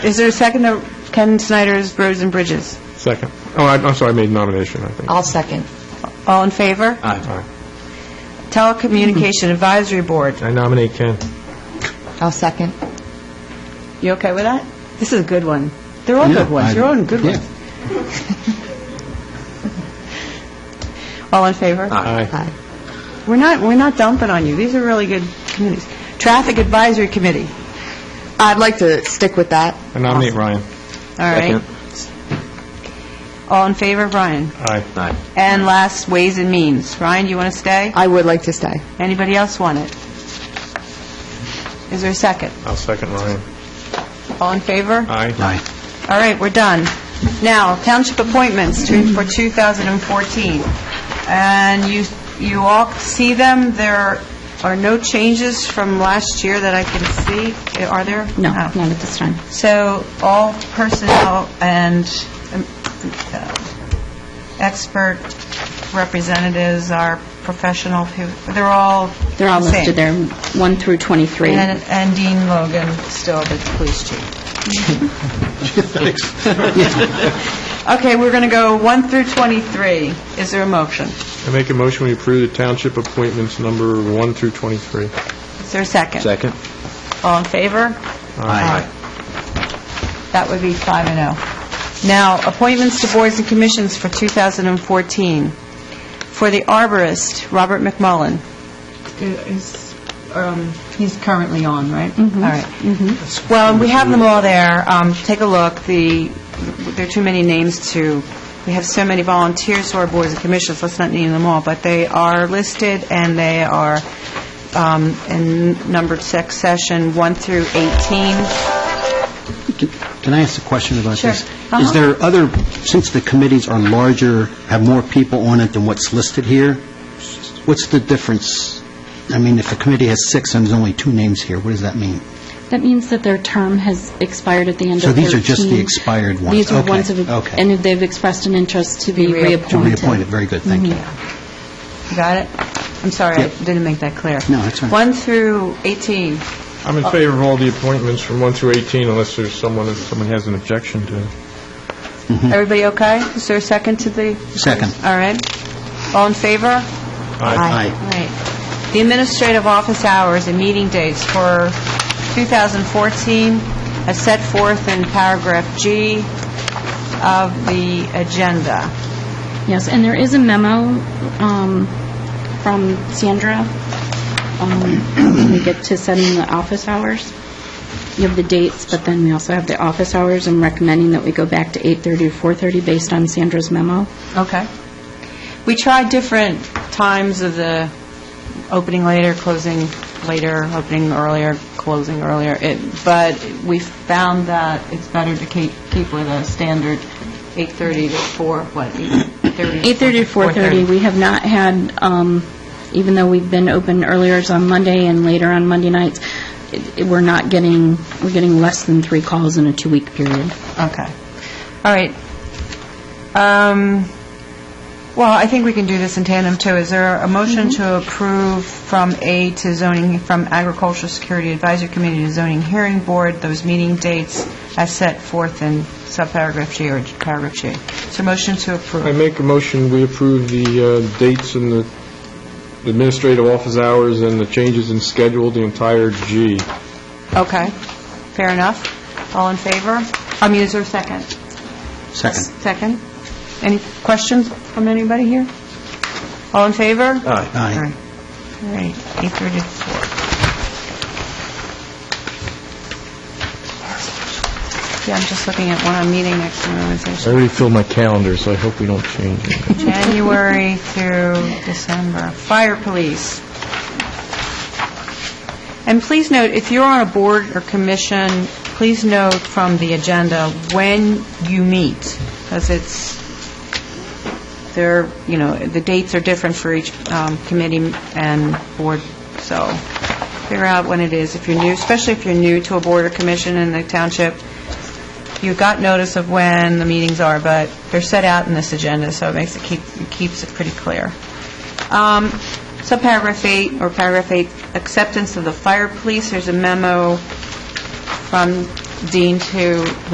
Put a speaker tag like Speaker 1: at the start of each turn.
Speaker 1: Is there a second to Ken Snyder's Roads and Bridges?
Speaker 2: Second. Oh, I- I'm sorry, I made nomination, I think.
Speaker 3: I'll second.
Speaker 1: All in favor?
Speaker 2: Aye.
Speaker 1: Telecommunication Advisory Board.
Speaker 2: I nominate Ken.
Speaker 3: I'll second.
Speaker 1: You okay with that? This is a good one. They're all good ones. You're all in good ones. All in favor?
Speaker 2: Aye.
Speaker 3: Aye.
Speaker 1: We're not, we're not dumping on you. These are really good committees. Traffic Advisory Committee.
Speaker 3: I'd like to stick with that.
Speaker 2: I nominate Ryan.
Speaker 1: All right. All in favor, Brian?
Speaker 2: Aye. Aye.
Speaker 1: And last, Ways and Means. Ryan, you want to stay?
Speaker 3: I would like to stay.
Speaker 1: Anybody else want it? Is there a second?
Speaker 2: I'll second Ryan.
Speaker 1: All in favor?
Speaker 2: Aye.
Speaker 1: All right, we're done. Now, township appointments to- for 2014. And you, you all see them, there are no changes from last year that I can see, are there?
Speaker 4: No,
Speaker 1: Oh.
Speaker 4: not at this time.
Speaker 1: So all personnel and um, uh, expert representatives are professional, who- they're all
Speaker 4: They're all
Speaker 1: the same.
Speaker 4: listed there, 1 through 23.
Speaker 1: And and Dean Logan, still the police chief. Okay, we're going to go 1 through 23. Is there a motion?
Speaker 2: I make a motion we approve the township appointments number 1 through 23.
Speaker 1: Is there a second? Second. All in favor?
Speaker 2: Aye.
Speaker 1: That would be 5 and 0. Now, appointments to boards and commissions for 2014. For the arborist, Robert McMullen. Is, um, he's currently on, right? All right. Mm-hmm. Well, we have them all there. Um, Take a look. The, there are too many names to, we have so many volunteers who are boards and commissions, let's not name them all, but they are listed and they are um, in numbered succession 1 through 18.
Speaker 5: Can can I ask a question about
Speaker 1: Sure.
Speaker 5: this?
Speaker 1: Uh-huh.
Speaker 5: Is there other, since the committees are larger, have more people on it than what's listed here, what's the difference? I mean, if the committee has six and there's only two names here, what does that mean?
Speaker 4: That means that their term has expired at the end of 13.
Speaker 5: So these are just the expired ones.
Speaker 4: These are
Speaker 5: Okay,
Speaker 4: ones of,
Speaker 5: okay.
Speaker 4: and they've expressed an interest to be reappointed.
Speaker 5: To reappoint it, very good, thank you.
Speaker 1: Mm-hmm. Got it? I'm sorry, I
Speaker 5: Yep.
Speaker 1: didn't make that clear.
Speaker 5: No, that's all right.
Speaker 1: 1 through 18.
Speaker 2: I'm in favor of all the appointments from 1 through 18 unless there's someone, if someone has an objection to.
Speaker 1: Everybody okay? Is there a second to the...
Speaker 5: Hmm. Second.
Speaker 1: All right. All in favor? All
Speaker 5: Aye.
Speaker 1: right. The administrative office hours and meeting dates for 2014 as set forth in paragraph G of the agenda.
Speaker 4: Yes, and there is a memo um, from Sandra. um, when We get to setting the office hours. You have the dates, but then we also have the office hours. I'm recommending that we go back to 8:30 or 4:30 based on Sandra's memo.
Speaker 1: Okay. We tried different times of the opening later, closing later, opening earlier, closing earlier, It- but we found that it's better to keep keep with a standard 8:30 to 4, what, 8:30?
Speaker 4: 8:30 to 4:30. We have not had, um, even though we've been open earlier it's on Monday and later on Monday nights, it- it- we're not getting, we're getting less than three calls in a two-week period.
Speaker 1: Okay. All right. Um, Well, I think we can do this in tandem, too. Is there a motion to approve from A to zoning, from Agricultural Security Advisory Committee to Zoning Hearing Board, those meeting dates as set forth in subparagraph G or paragraph G? Is there a motion to
Speaker 2: I
Speaker 1: approve?
Speaker 2: make a motion we approve the uh, dates and the the administrative office hours and the changes in schedule, the entire G.
Speaker 1: Okay. Fair enough. All in favor? I mean, is there a second?
Speaker 5: Second.
Speaker 1: Second? Any questions from anybody here? All in favor? All
Speaker 5: Aye.
Speaker 1: right, All right, 8:34. Yeah, I'm just looking at one I'm meeting next
Speaker 2: I
Speaker 1: month,
Speaker 2: already filled my calendar, so I hope we don't change it.
Speaker 1: January through December. Fire police. And please note, if you're on a board or commission, please note from the agenda when you meet, because it's they're, you know, the dates are different for each um, committee and board, so figure out when it is, if you're new, especially if you're new to a board or commission in the township. You got notice of when the meetings are, but they're set out in this agenda, so it makes it, keep it keeps it pretty clear. Um, Subparagraph 8, or paragraph 8, acceptance of the fire police, there's a memo from Dean to